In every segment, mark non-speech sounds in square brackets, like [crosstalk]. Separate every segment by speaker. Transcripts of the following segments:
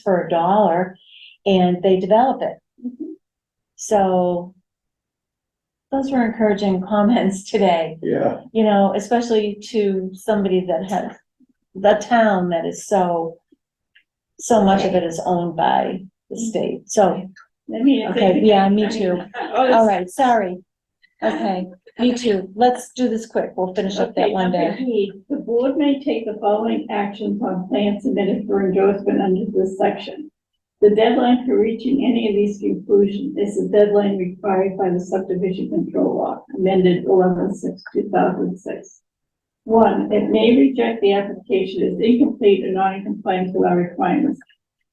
Speaker 1: for a dollar and they develop it.
Speaker 2: Mm-hmm.
Speaker 1: So those were encouraging [laughs] comments today,
Speaker 3: Yeah,
Speaker 1: you know, especially to somebody that has, the town that is so, so much of it is owned by the state. So,
Speaker 2: I mean, if they
Speaker 1: Okay,
Speaker 2: could-
Speaker 1: yeah, me
Speaker 2: I mean,
Speaker 1: too.
Speaker 2: [laughs] oh,
Speaker 1: all
Speaker 2: this-
Speaker 1: right, sorry. Okay, me too. Let's do this quick. We'll finish up that
Speaker 2: Okay,
Speaker 1: one
Speaker 2: number
Speaker 1: day.
Speaker 2: E, The board may take the following actions on plans submitted for endorsement under this section. The deadline for reaching any of these conclusions is the deadline required by the subdivision control law amended eleven six two thousand six. One, it may reject the application as incomplete or not in compliance with our requirements.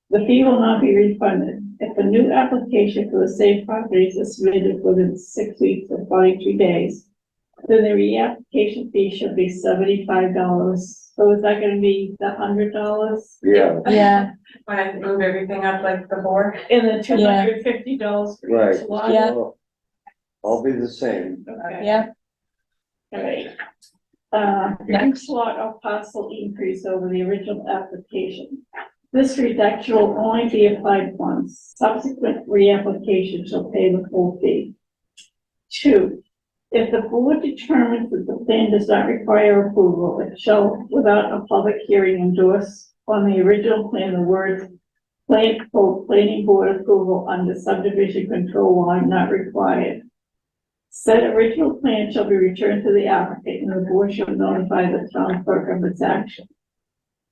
Speaker 2: The fee will not be refunded. If a new application for the same properties is submitted within six weeks or forty-two days, then the reapplication fee should be seventy-five dollars. So is that gonna be the hundred dollars?
Speaker 3: yeah,
Speaker 1: Yeah,
Speaker 4: When I move everything up like the board.
Speaker 2: And then two
Speaker 1: Yeah.
Speaker 2: hundred fifty dollars for
Speaker 3: right.
Speaker 2: each lot?
Speaker 1: Yeah.
Speaker 3: I'll- I'll be the same.
Speaker 2: Okay,
Speaker 1: yeah.
Speaker 2: alright. Uh,
Speaker 1: Next.
Speaker 2: next lot of parcel increase over the original application. This reduction will only be applied once. Subsequent reapplication shall pay the full fee. Two, if the board determines that the plan does not require approval, it shall, without a public hearing, endorse on the original plan the words plan, for planning board approval under subdivision control law not required. Said original plan shall be returned to the applicant and the board shall notify the town clerk of its action.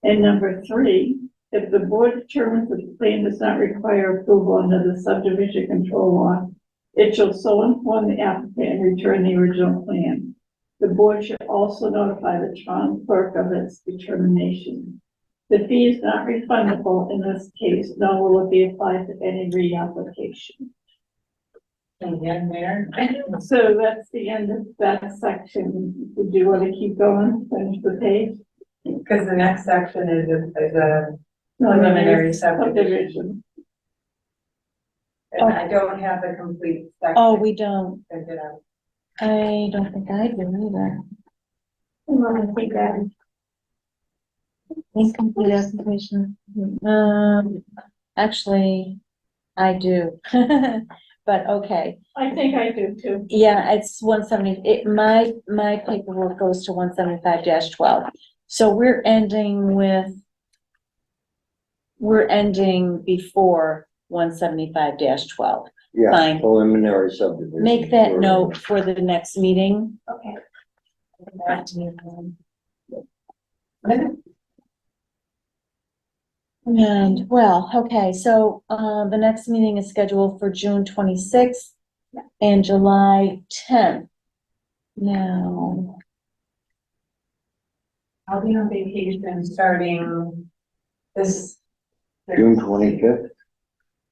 Speaker 2: And number three, if the board determines that the plan does not require approval under the subdivision control law, it shall so inform the applicant and return the original plan. The board should also notify the town clerk of its determination. The fee is not refundable in this case, nor will it be applied to any reapplication.
Speaker 4: Again, Mayor.
Speaker 2: [laughs] So that's the end of that section. Would you want to keep going, finish the page?
Speaker 4: Because the next section is, a- is a preliminary subdivision.
Speaker 2: Subdivision.
Speaker 4: And I don't have the complete section.
Speaker 1: Oh, we don't.
Speaker 4: figured out.
Speaker 1: I don't think I do either. Incomplete application. Um, actually, I do. [laughs] But okay,
Speaker 2: I think I do too.
Speaker 1: yeah, it's one seventy, it, my, my paperwork goes to one seventy-five twelve. So we're ending with, we're ending before one seventy-five twelve.
Speaker 3: Yeah,
Speaker 1: Fine.
Speaker 3: preliminary subdivision.
Speaker 1: Make that
Speaker 3: Or-
Speaker 1: note for the next meeting.
Speaker 2: Okay.
Speaker 1: And, well, okay, so, uh, the next meeting is scheduled for June twenty-sixth and July tenth. Now,
Speaker 4: I'll be on vacation starting this.
Speaker 3: June twenty-fifth,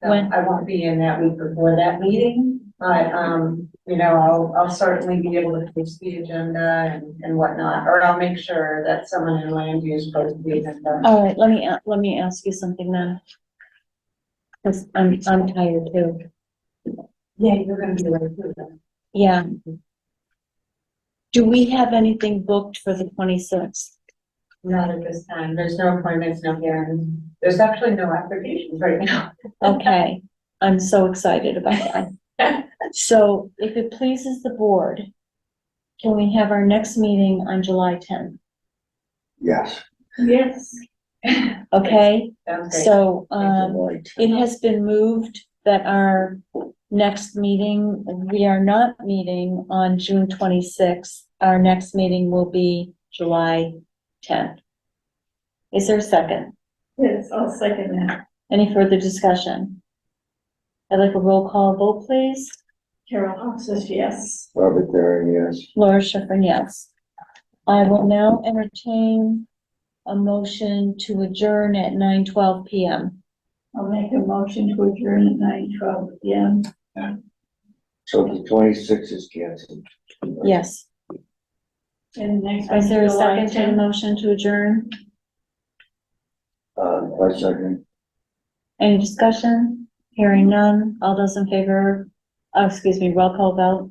Speaker 4: No,
Speaker 1: When?
Speaker 4: I won't be in that week before that meeting, but, um, you know, I'll, I'll certainly be able to post the agenda and, and whatnot. Or I'll make sure that someone in land use posts the agenda.
Speaker 1: all right, let me, a- let me ask you something then. Cause I'm, I'm tired too.
Speaker 4: Yeah, you're gonna be late too then.
Speaker 1: Yeah. Do we have anything booked for the twenty-sixth?
Speaker 4: Not at this time. There's no appointments, no hearings. There's actually no applications right now.
Speaker 1: Okay, I'm so excited about that. So if it pleases the board, can we have our next meeting on July tenth?
Speaker 3: yes.
Speaker 2: Yes,
Speaker 1: Okay,
Speaker 4: Sounds great.
Speaker 1: so, um,
Speaker 3: Right.
Speaker 1: It has been moved that our next meeting, we are not meeting on June twenty-sixth. Our next meeting will be July tenth. Is there a second?
Speaker 2: yes, I'll second that.
Speaker 1: Any further discussion? I'd like a roll call vote, please.
Speaker 2: Carol Hawes says yes.
Speaker 3: Robert Derry, yes.
Speaker 1: Laura Schiffern, yes. I will now entertain a motion to adjourn at nine twelve PM.
Speaker 2: I'll make a motion to adjourn at nine twelve P M.
Speaker 3: So the twenty-sixth is canceled.
Speaker 1: Yes.
Speaker 2: And the next.
Speaker 1: Is there a
Speaker 2: one's July
Speaker 1: second to the
Speaker 2: 10th.
Speaker 1: motion to adjourn?
Speaker 3: Uh, I second,
Speaker 1: Any discussion? Hearing none. All those in favor, oh, excuse me, roll call vote.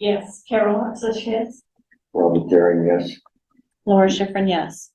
Speaker 2: Yes, Carol Hawes says yes.
Speaker 3: Robert Derry, yes.
Speaker 1: Laura Schifrin, yes.